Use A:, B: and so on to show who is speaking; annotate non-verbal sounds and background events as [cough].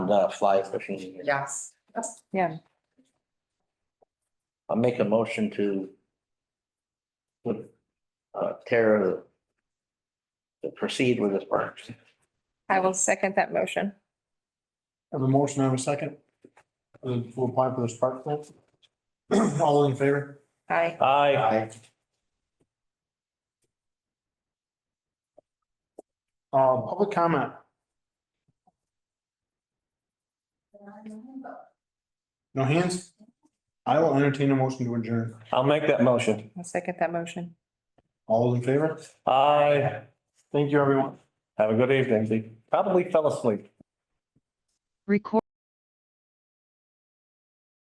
A: the uh, fly fishing.
B: Yes.
A: I'll make a motion to put, uh, Tara to proceed with this purchase.
C: I will second that motion.
D: Have a motion, have a second. Uh, We'll apply for this park plan. [clears throat] All in favor?
C: Aye.
A: Aye.
D: Uh, public comment, no hands? I will entertain a motion to adjourn.
E: I'll make that motion.
C: I'll second that motion.
D: All in favor?
E: Aye.
D: Thank you, everyone.
E: Have a good evening. Probably fell asleep.
F: Record.